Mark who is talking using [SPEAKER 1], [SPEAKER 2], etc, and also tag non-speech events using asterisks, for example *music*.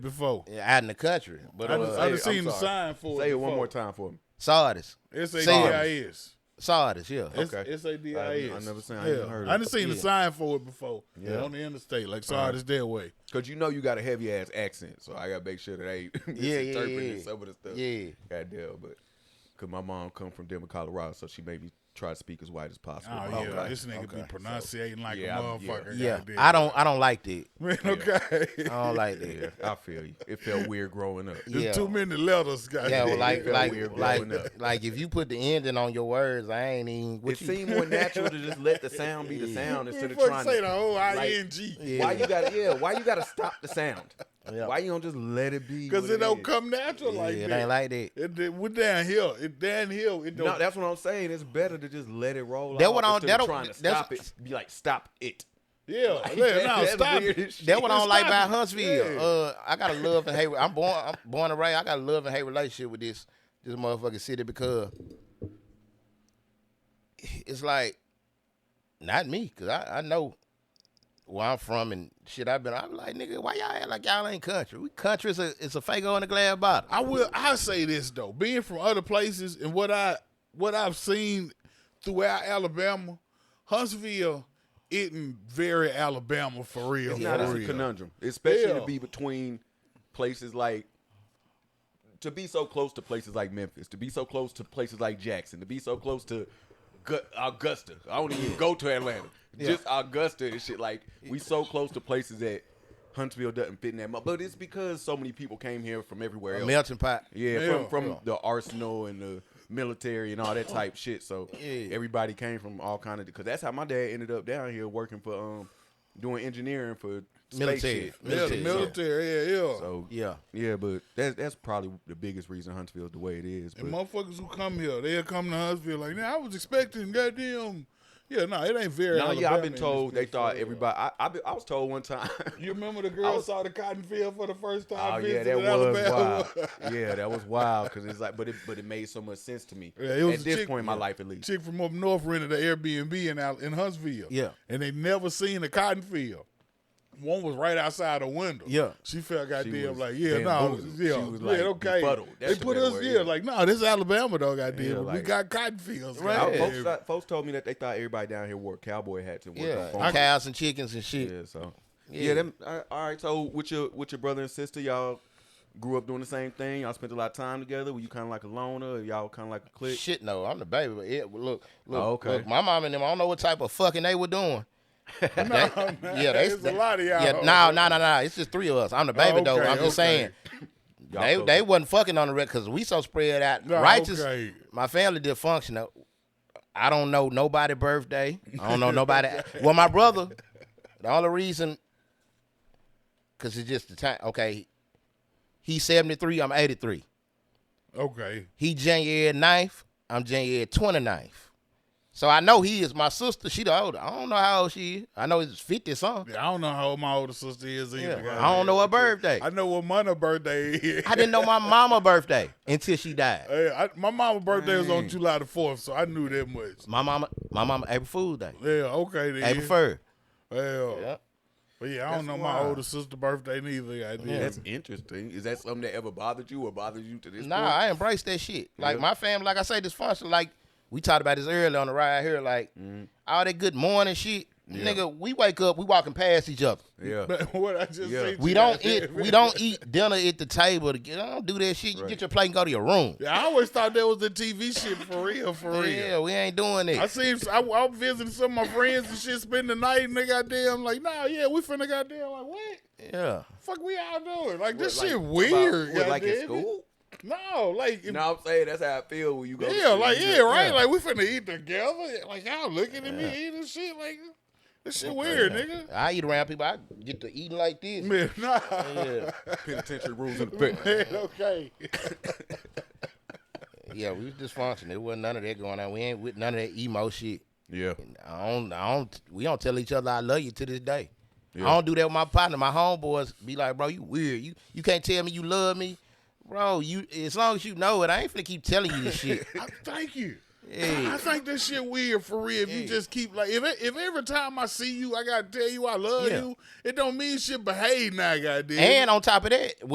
[SPEAKER 1] before.
[SPEAKER 2] out in the country. But
[SPEAKER 1] I
[SPEAKER 2] uh,
[SPEAKER 1] just,
[SPEAKER 2] I
[SPEAKER 1] I
[SPEAKER 3] it,
[SPEAKER 1] just
[SPEAKER 3] I'm
[SPEAKER 1] seen the
[SPEAKER 3] sorry.
[SPEAKER 1] sign for it.
[SPEAKER 3] Say it one
[SPEAKER 1] before.
[SPEAKER 3] more time for me.
[SPEAKER 2] Sardis.
[SPEAKER 1] S A D I
[SPEAKER 2] Sardis.
[SPEAKER 1] S.
[SPEAKER 2] Sardis, yeah.
[SPEAKER 1] S
[SPEAKER 3] Okay.
[SPEAKER 1] S A D I
[SPEAKER 3] I-
[SPEAKER 1] S.
[SPEAKER 3] I never seen- I ain't
[SPEAKER 1] Yeah.
[SPEAKER 3] heard of
[SPEAKER 1] I
[SPEAKER 3] it.
[SPEAKER 1] done seen the
[SPEAKER 2] Yeah.
[SPEAKER 1] sign for it before.
[SPEAKER 3] Yeah. Uh-huh.
[SPEAKER 1] On the interstate, like Sardis their way.
[SPEAKER 3] Cause you know you got a heavy ass accent, so I gotta make sure that I ain't *laughs*
[SPEAKER 2] yeah, yeah,
[SPEAKER 3] misinterpreting
[SPEAKER 2] yeah.
[SPEAKER 3] some of the stuff.
[SPEAKER 2] Yeah.
[SPEAKER 3] Goddamn, but cause my mom come from Denver, Colorado, so she made me try to speak as white as possible.
[SPEAKER 1] Oh yeah,
[SPEAKER 3] But-
[SPEAKER 2] Okay.
[SPEAKER 1] this nigga be
[SPEAKER 3] Okay.
[SPEAKER 1] pronunciating like
[SPEAKER 3] yeah,
[SPEAKER 1] a
[SPEAKER 3] I'm- yeah.
[SPEAKER 1] motherfucker.
[SPEAKER 2] yeah.
[SPEAKER 1] goddamn.
[SPEAKER 2] I don't I don't like that.
[SPEAKER 1] *laughs* Man,
[SPEAKER 2] *laughs*
[SPEAKER 1] okay.
[SPEAKER 2] I don't like that.
[SPEAKER 3] Yeah, I feel you. It felt weird growing up.
[SPEAKER 2] Yeah.
[SPEAKER 1] There's too many letters, guys.
[SPEAKER 2] *laughs* Yeah,
[SPEAKER 1] *laughs*
[SPEAKER 2] well, like
[SPEAKER 3] felt
[SPEAKER 2] like
[SPEAKER 3] weird growing up.
[SPEAKER 2] like like if you put the ending on your words, I ain't even. What
[SPEAKER 3] It
[SPEAKER 2] you,
[SPEAKER 3] seemed *laughs* more natural to just let the sound be the sound instead of trying
[SPEAKER 1] say
[SPEAKER 3] to
[SPEAKER 1] the whole
[SPEAKER 3] like-
[SPEAKER 1] ing
[SPEAKER 3] Why you gotta yeah? Why you gotta stop the sound?
[SPEAKER 2] Yeah.
[SPEAKER 3] Why you don't just let it be?
[SPEAKER 1] because
[SPEAKER 3] what
[SPEAKER 1] it don't
[SPEAKER 3] is?
[SPEAKER 1] come natural
[SPEAKER 2] yeah,
[SPEAKER 1] like
[SPEAKER 2] it
[SPEAKER 1] that.
[SPEAKER 2] ain't like that.
[SPEAKER 1] It, it, we're down here. It down here. It don't.
[SPEAKER 3] No, that's what I'm saying. It's better to just let it roll.
[SPEAKER 2] That
[SPEAKER 3] off
[SPEAKER 2] what I don't-
[SPEAKER 3] instead
[SPEAKER 2] that
[SPEAKER 3] of
[SPEAKER 2] don't-
[SPEAKER 3] trying to
[SPEAKER 2] that's-
[SPEAKER 3] stop it. Be like, stop it.
[SPEAKER 1] yeah.
[SPEAKER 2] *laughs*
[SPEAKER 3] Like,
[SPEAKER 1] yeah, no,
[SPEAKER 3] that's
[SPEAKER 1] stop
[SPEAKER 3] weird
[SPEAKER 1] it.
[SPEAKER 3] as shit.
[SPEAKER 2] That what I don't like about
[SPEAKER 1] Stop it.
[SPEAKER 2] Huntsville.
[SPEAKER 1] Yeah.
[SPEAKER 2] Uh, I got a love and hate. I'm born, I'm born and raised. I got a love and hate relationship with this this motherfucking city because it's like not me, cause I, I know where I'm from and shit. I've been. I'm like nigga, why y'all act like y'all ain't country? We country is a it's a fake on the glass bottle.
[SPEAKER 1] I will. I say this though, being from other places and what I what I've seen throughout Alabama, Huntsville isn't very Alabama for real.
[SPEAKER 3] It's not
[SPEAKER 1] for
[SPEAKER 3] it's a
[SPEAKER 1] real.
[SPEAKER 3] conundrum, especially
[SPEAKER 1] Yeah.
[SPEAKER 3] to be between places like to be so close to places like Memphis, to be so close to places like Jackson, to be so close to Gu- Augusta. I don't even go to
[SPEAKER 2] *laughs*
[SPEAKER 3] Atlanta, just Augusta and shit. Like we so close to places that Huntsville doesn't fit in that much, but it's because so many people came here from everywhere else.
[SPEAKER 2] Melting pot.
[SPEAKER 3] Yeah,
[SPEAKER 1] Yeah.
[SPEAKER 3] from from the arsenal and the military and all that type shit. So
[SPEAKER 2] Yeah.
[SPEAKER 3] everybody came from all kind of because that's how my dad ended up down here working for um doing engineering for space
[SPEAKER 2] Military.
[SPEAKER 3] shit.
[SPEAKER 1] Yeah, the
[SPEAKER 2] Military,
[SPEAKER 1] military. Yeah, yeah.
[SPEAKER 3] So
[SPEAKER 2] Yeah.
[SPEAKER 3] yeah, but that's that's probably the biggest reason Huntsville's the way it is.
[SPEAKER 1] And
[SPEAKER 3] but-
[SPEAKER 1] motherfuckers who come here, they'll come to Huntsville like, nah, I was expecting goddamn. Yeah, no, it ain't very.
[SPEAKER 3] no, yeah,
[SPEAKER 1] Alabama
[SPEAKER 3] I've been
[SPEAKER 1] in
[SPEAKER 3] told
[SPEAKER 1] this
[SPEAKER 3] they
[SPEAKER 1] bitch,
[SPEAKER 3] thought
[SPEAKER 1] for real.
[SPEAKER 3] everybody. I I, been, I was told one time. *laughs*
[SPEAKER 1] You remember the girl
[SPEAKER 3] I was-
[SPEAKER 1] saw the cotton field for the first time?
[SPEAKER 3] Oh
[SPEAKER 1] visiting
[SPEAKER 3] yeah, that was
[SPEAKER 1] Alabama?
[SPEAKER 3] wild. Yeah, that was wild because it's like, but it but it made so much sense to me
[SPEAKER 1] Yeah, it was
[SPEAKER 3] at
[SPEAKER 1] a
[SPEAKER 3] this
[SPEAKER 1] chick-
[SPEAKER 3] point in my
[SPEAKER 1] yeah.
[SPEAKER 3] life at least.
[SPEAKER 1] Chick from up north rented an Airbnb in Al- in Huntsville.
[SPEAKER 2] Yeah.
[SPEAKER 1] and they never seen a cotton field. One was right outside the window.
[SPEAKER 2] Yeah.
[SPEAKER 1] she felt
[SPEAKER 3] She
[SPEAKER 1] goddamn
[SPEAKER 3] was
[SPEAKER 1] like yeah, no,
[SPEAKER 3] bamboozled.
[SPEAKER 1] yeah,
[SPEAKER 3] She was,
[SPEAKER 1] yeah,
[SPEAKER 3] like,
[SPEAKER 1] okay.
[SPEAKER 3] befuddled. That's
[SPEAKER 1] They
[SPEAKER 3] the
[SPEAKER 1] put
[SPEAKER 3] better
[SPEAKER 1] us
[SPEAKER 3] word,
[SPEAKER 1] yeah,
[SPEAKER 3] yeah.
[SPEAKER 1] like no, this is Alabama though, goddamn.
[SPEAKER 3] Yeah,
[SPEAKER 1] but we
[SPEAKER 3] like-
[SPEAKER 1] got cotton fields,
[SPEAKER 2] Right.
[SPEAKER 3] Oh,
[SPEAKER 1] goddamn.
[SPEAKER 3] folks, thought- folks told me that they thought everybody down here wore cowboy hats and worked
[SPEAKER 2] Yeah,
[SPEAKER 3] on farms.
[SPEAKER 2] and cows and chickens and shit.
[SPEAKER 3] Yeah, so
[SPEAKER 2] Yeah.
[SPEAKER 3] yeah. them, all all right. So with your with your brother and sister, y'all grew up doing the same thing. Y'all spent a lot of time together. Were you kind of like a loner? Y'all kind of like a clique?
[SPEAKER 2] Shit, no, I'm the baby. But yeah, look, look,
[SPEAKER 3] Oh, okay.
[SPEAKER 2] look, my mom and them, I don't know what type of fucking they were
[SPEAKER 1] *laughs*
[SPEAKER 2] doing.
[SPEAKER 1] No, man,
[SPEAKER 2] Yeah, they,
[SPEAKER 1] it's a lot of y'all.
[SPEAKER 2] Yeah, no, no, no, no. It's just three of us. I'm the baby though.
[SPEAKER 1] okay,
[SPEAKER 2] I'm just
[SPEAKER 1] okay.
[SPEAKER 2] saying
[SPEAKER 3] Y'all
[SPEAKER 2] they
[SPEAKER 3] close.
[SPEAKER 2] they wasn't fucking on the record because we so spread out.
[SPEAKER 1] No,
[SPEAKER 2] Righteous.
[SPEAKER 1] okay.
[SPEAKER 2] My family dysfunctional. I don't know nobody birthday. I don't
[SPEAKER 1] *laughs*
[SPEAKER 2] know nobody. well, my brother. The only reason, because it's just the time. Okay, he's seventy three. I'm eighty three.
[SPEAKER 1] Okay,
[SPEAKER 2] He January 9th. I'm January 29th. So I know he is my sister. She the older. I don't know how old she is. I know it's 50 something.
[SPEAKER 1] Yeah, I don't know how old my older sister is either.
[SPEAKER 2] Yeah.
[SPEAKER 1] goddamn.
[SPEAKER 2] I don't know her birthday.
[SPEAKER 1] I know what mother birthday is. *laughs*
[SPEAKER 2] I didn't know my mama birthday until she died.
[SPEAKER 1] Hey, I, my mama's birthday was on
[SPEAKER 3] Dang.
[SPEAKER 1] July the fourth, so I knew that much.
[SPEAKER 2] My mama, my mama April Fool's Day.
[SPEAKER 1] Yeah, okay then.
[SPEAKER 2] April 1st.
[SPEAKER 1] Hell.
[SPEAKER 2] Yep.
[SPEAKER 1] But yeah, I don't
[SPEAKER 3] That's
[SPEAKER 1] know my
[SPEAKER 3] wild.
[SPEAKER 1] older sister birthday neither. I did.
[SPEAKER 3] That's interesting. Is that something that ever bothered you or bothers you to this
[SPEAKER 2] Nah,
[SPEAKER 3] point?
[SPEAKER 2] I embrace that shit. Like my family, like I say, dysfunction. Like we talked about this earlier on the ride here. Like all that good morning shit, nigga. We wake up, we walking past each other.
[SPEAKER 3] yeah.
[SPEAKER 1] *laughs* But what I just
[SPEAKER 3] Yeah.
[SPEAKER 1] said.
[SPEAKER 2] We
[SPEAKER 1] you,
[SPEAKER 2] don't
[SPEAKER 1] I
[SPEAKER 2] eat.
[SPEAKER 1] did.
[SPEAKER 2] We don't eat dinner at the table. Together. I don't do that shit. You get your plate and go to your room.
[SPEAKER 1] *laughs* Yeah, I always thought that was the TV shit for real, for real.
[SPEAKER 2] Yeah, we ain't doing
[SPEAKER 1] I
[SPEAKER 2] it.
[SPEAKER 1] seen I, I was visiting some of my friends and shit, spend the night, and they goddamn like, nah, yeah, we finna goddamn like, what?
[SPEAKER 2] Yeah.
[SPEAKER 1] Fuck, we all doing like this
[SPEAKER 3] What, like,
[SPEAKER 1] shit weird.
[SPEAKER 3] about- what, like
[SPEAKER 1] goddamn
[SPEAKER 3] in
[SPEAKER 1] it.
[SPEAKER 3] school?
[SPEAKER 1] No, like
[SPEAKER 3] No, I'm saying that's how I feel when you go. to
[SPEAKER 1] Yeah,
[SPEAKER 3] school.
[SPEAKER 1] like
[SPEAKER 3] You
[SPEAKER 1] yeah,
[SPEAKER 3] just-
[SPEAKER 1] right. Like we finna eat together. Like y'all looking at me eating shit. Like this shit weird, nigga.
[SPEAKER 2] I eat around people. I get to eating like this.
[SPEAKER 1] Man, *laughs* nah.
[SPEAKER 2] Yeah.
[SPEAKER 3] Penitentiary
[SPEAKER 1] *laughs*
[SPEAKER 3] rules in effect.
[SPEAKER 1] Man, okay.
[SPEAKER 2] Yeah, we was dysfunctional. There wasn't none of that going on. We ain't with none of that emo shit.
[SPEAKER 3] Yeah.
[SPEAKER 2] I don't, I don't, we don't tell each other I love you to this day.
[SPEAKER 3] Yeah.
[SPEAKER 2] I don't do that with my partner. My homeboys be like, bro, you weird. You you can't tell me you love me. Bro, you as long as you know it, I ain't finna keep telling you this
[SPEAKER 1] *laughs*
[SPEAKER 2] shit.
[SPEAKER 1] I, thank you.
[SPEAKER 2] Yeah.
[SPEAKER 1] I think this shit weird for real. If you
[SPEAKER 2] Yeah.
[SPEAKER 1] just keep like, if if every time I see you, I gotta tell you I love
[SPEAKER 2] Yeah.
[SPEAKER 1] you. It don't mean shit. Behave now, goddamn.
[SPEAKER 2] and on top of that,